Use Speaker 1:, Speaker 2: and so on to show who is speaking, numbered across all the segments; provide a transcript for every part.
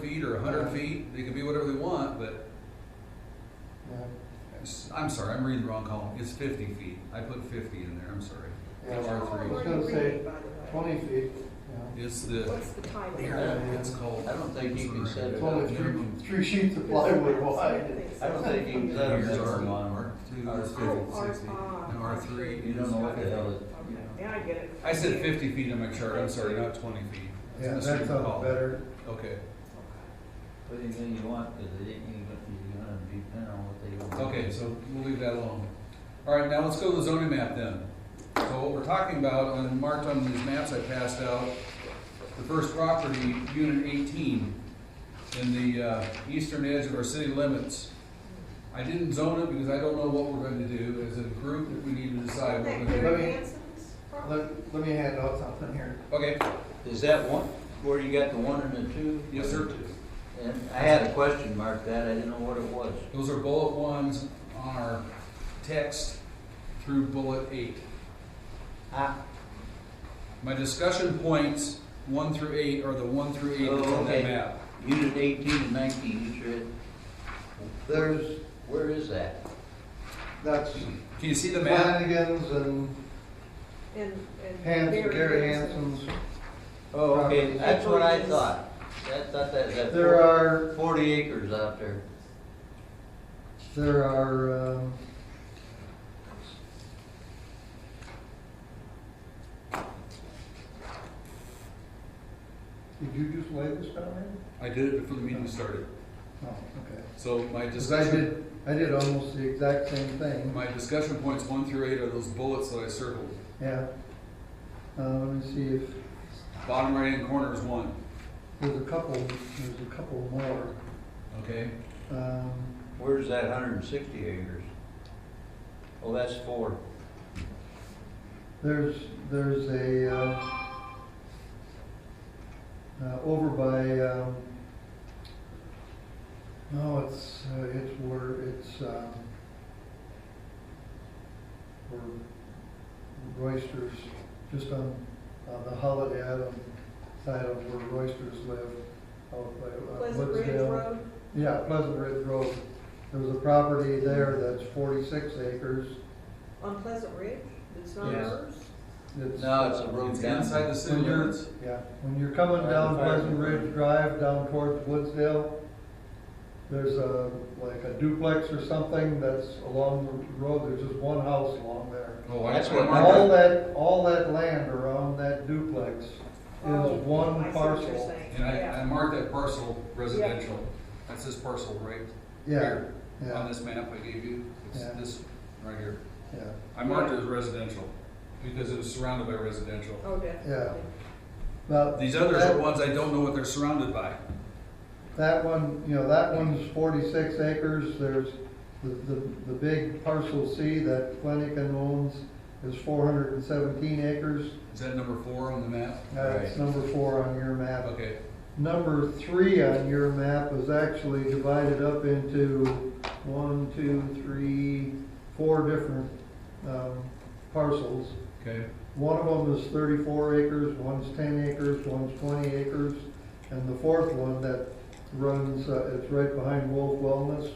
Speaker 1: feet or hundred feet, they can be whatever they want, but
Speaker 2: Yeah,
Speaker 1: it's- I'm sorry, I'm reading the wrong column, it's fifty feet, I put fifty in there, I'm sorry.
Speaker 2: yeah.
Speaker 1: Or
Speaker 3: Oh,
Speaker 1: three.
Speaker 3: where
Speaker 2: I was
Speaker 3: do
Speaker 2: gonna
Speaker 3: we
Speaker 2: say
Speaker 3: read, by the way?
Speaker 2: Twenty feet, yeah.
Speaker 1: It's the,
Speaker 3: What's the type?
Speaker 2: Yeah.
Speaker 1: it's called.
Speaker 4: I don't think you can set
Speaker 2: It's
Speaker 4: it
Speaker 2: only
Speaker 4: up.
Speaker 2: three, three sheets of plywood wide.
Speaker 4: I don't think you can set
Speaker 1: Here's
Speaker 4: it
Speaker 1: R
Speaker 4: up.
Speaker 1: one, R two,
Speaker 4: R
Speaker 1: it's
Speaker 3: Oh, R-
Speaker 1: 50, 60,
Speaker 3: ah.
Speaker 1: and R three
Speaker 4: You don't
Speaker 1: is.
Speaker 4: know what the hell it, you
Speaker 3: Okay,
Speaker 4: know.
Speaker 3: now I get it.
Speaker 1: I said fifty feet on my chart, I'm sorry, not twenty feet. It's in
Speaker 2: Yeah,
Speaker 1: the
Speaker 2: that
Speaker 1: same
Speaker 2: sounds
Speaker 1: column.
Speaker 2: better.
Speaker 1: Okay,
Speaker 4: What anything you want, cause it ain't, even- uh, you're gonna depend on what they want.
Speaker 1: okay, so we'll leave that alone. All right, now let's go to the zoning map then. So what we're talking about, and marked on these maps I passed out, the first property, unit eighteen, in the, uh, eastern edge of our city limits. I didn't zone it because I don't know what we're going to do as a group, if we need to decide what we're
Speaker 3: Isn't
Speaker 1: gonna
Speaker 3: that
Speaker 1: do.
Speaker 2: Let me-
Speaker 3: Gary Hanson's property?
Speaker 2: Let, let me hand out something here.
Speaker 1: Okay,
Speaker 4: Is that one, where you got the one and the two?
Speaker 1: yes, sir.
Speaker 4: And I had a question mark that, I didn't know what it was.
Speaker 1: Those are bullet ones on our text through bullet eight.
Speaker 4: Ah,
Speaker 1: My discussion points, one through eight, are the one through eight that's on
Speaker 4: Oh,
Speaker 1: that
Speaker 4: okay.
Speaker 1: map.
Speaker 4: unit eighteen and nineteen, you said,
Speaker 2: There's,
Speaker 4: where is that?
Speaker 2: that's
Speaker 1: Can you see the map?
Speaker 2: Flanagan's and
Speaker 3: And, and.
Speaker 2: Hanson, Gary Hanson's.
Speaker 4: Oh, okay,
Speaker 2: properties.
Speaker 4: that's what I thought, I thought that, that.
Speaker 2: There are,
Speaker 4: Forty acres out there.
Speaker 2: there are, um, did you just lay this down there?
Speaker 1: I did it before the meeting started.
Speaker 2: Oh, okay.
Speaker 1: So my
Speaker 2: Because I
Speaker 1: discussion,
Speaker 2: did, I did almost the exact same thing.
Speaker 1: my discussion points one through eight are those bullets that I circled.
Speaker 2: Yeah. Uh, let me see if,
Speaker 1: Bottom right-hand corner is one,
Speaker 2: there's a couple, there's a couple more.
Speaker 1: okay?
Speaker 2: Um,
Speaker 4: Where's that hundred and sixty acres? Oh, that's four.
Speaker 2: there's, there's a, uh, uh, over by, um, no, it's, uh, it's where, it's, um, where Roysters, just on, on the Holiday Island side of where Roysters live, out by uh,
Speaker 3: Pleasant Ridge
Speaker 2: Woodsdale.
Speaker 3: Road,
Speaker 2: Yeah, Pleasant Ridge Road. There's a property there that's forty-six acres.
Speaker 3: on Pleasant Ridge, it's not
Speaker 2: Yes.
Speaker 3: ours.
Speaker 2: It's,
Speaker 4: No, it's a road
Speaker 1: It's
Speaker 4: down.
Speaker 1: inside the city limits.
Speaker 2: Yeah, when you're coming down
Speaker 4: Fire- fire-
Speaker 2: Pleasant Ridge Drive down towards Woodsdale, there's a, like a duplex or something that's along the road, there's just one house along there.
Speaker 1: Oh, I-
Speaker 4: That's
Speaker 1: I
Speaker 4: what
Speaker 1: marked
Speaker 4: my-
Speaker 2: All that, all that land around that duplex is
Speaker 3: Oh, I
Speaker 2: one
Speaker 3: see what you're
Speaker 2: parcel.
Speaker 3: saying.
Speaker 1: And I, I
Speaker 3: Yeah.
Speaker 1: marked that parcel residential. That's this parcel right
Speaker 2: Yeah,
Speaker 1: here, on
Speaker 2: yeah,
Speaker 1: this map I gave you. It's
Speaker 2: Yeah.
Speaker 1: this right here.
Speaker 2: yeah.
Speaker 1: I marked it as residential because it was surrounded by residential.
Speaker 3: Oh, definitely.
Speaker 2: Now,
Speaker 1: These others are
Speaker 2: that-
Speaker 1: ones I don't know what they're surrounded by.
Speaker 2: That one, you know, that one's forty-six acres, there's the, the, the big parcel C that Flanagan owns is four hundred and seventeen acres.
Speaker 1: Is that number four on the map?
Speaker 2: That's
Speaker 4: Right.
Speaker 2: number four on your map.
Speaker 1: Okay,
Speaker 2: Number three on your map is actually divided up into one, two, three, four different, um, parcels.
Speaker 1: okay.
Speaker 2: One of them is thirty-four acres, one's ten acres, one's twenty acres, and the fourth one that runs, uh, it's right behind Wolf Wellness,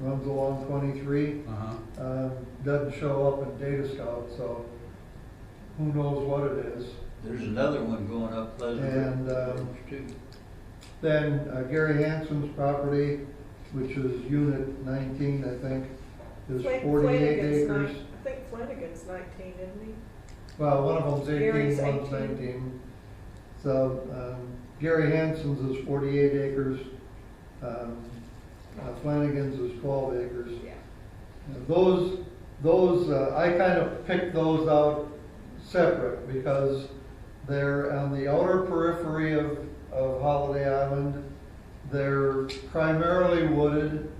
Speaker 2: runs along twenty-three,
Speaker 1: Uh-huh.
Speaker 2: um, doesn't show up in Data Scout, so who knows what it is.
Speaker 4: There's another one going up Pleasant
Speaker 2: And,
Speaker 4: Ridge
Speaker 2: um,
Speaker 4: too.
Speaker 2: Then uh, Gary Hanson's property, which is unit nineteen, I think, is
Speaker 3: Flan-
Speaker 2: forty-eight
Speaker 3: Flanagan's nine-
Speaker 2: acres.
Speaker 3: I think Flanagan's nineteen, isn't
Speaker 2: Well, one of them's
Speaker 3: Gary's
Speaker 2: eighteen, one's
Speaker 3: 18.
Speaker 2: nineteen. So, um, Gary Hanson's is forty-eight acres, um, uh, Flanagan's is twelve acres.
Speaker 3: he? Yeah.
Speaker 2: And Those, those, uh, I kind of picked those out separate because they're on the outer periphery of, of Holiday Island. They're primarily wooded,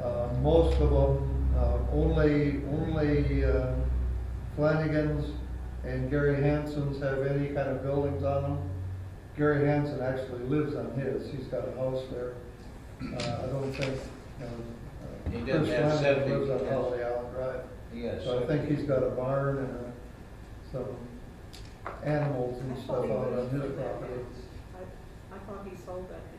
Speaker 2: uh, most of them, uh, only, only, uh, Flanagan's and Gary Hanson's have any kind of buildings on them. Gary Hanson actually lives on his, he's got a house there. Uh, I don't think, um. uh,
Speaker 4: He doesn't
Speaker 2: Chris Flanagan
Speaker 4: have septic,
Speaker 2: Lives on
Speaker 4: yes.
Speaker 2: Holiday Island Drive.
Speaker 4: Yes.
Speaker 2: So I think he's got a barn and a, some animals
Speaker 3: I
Speaker 2: and
Speaker 3: thought
Speaker 2: stuff
Speaker 3: Oh, he
Speaker 2: out on
Speaker 3: moved
Speaker 2: his
Speaker 3: that
Speaker 2: property.
Speaker 3: house. I I thought he sold that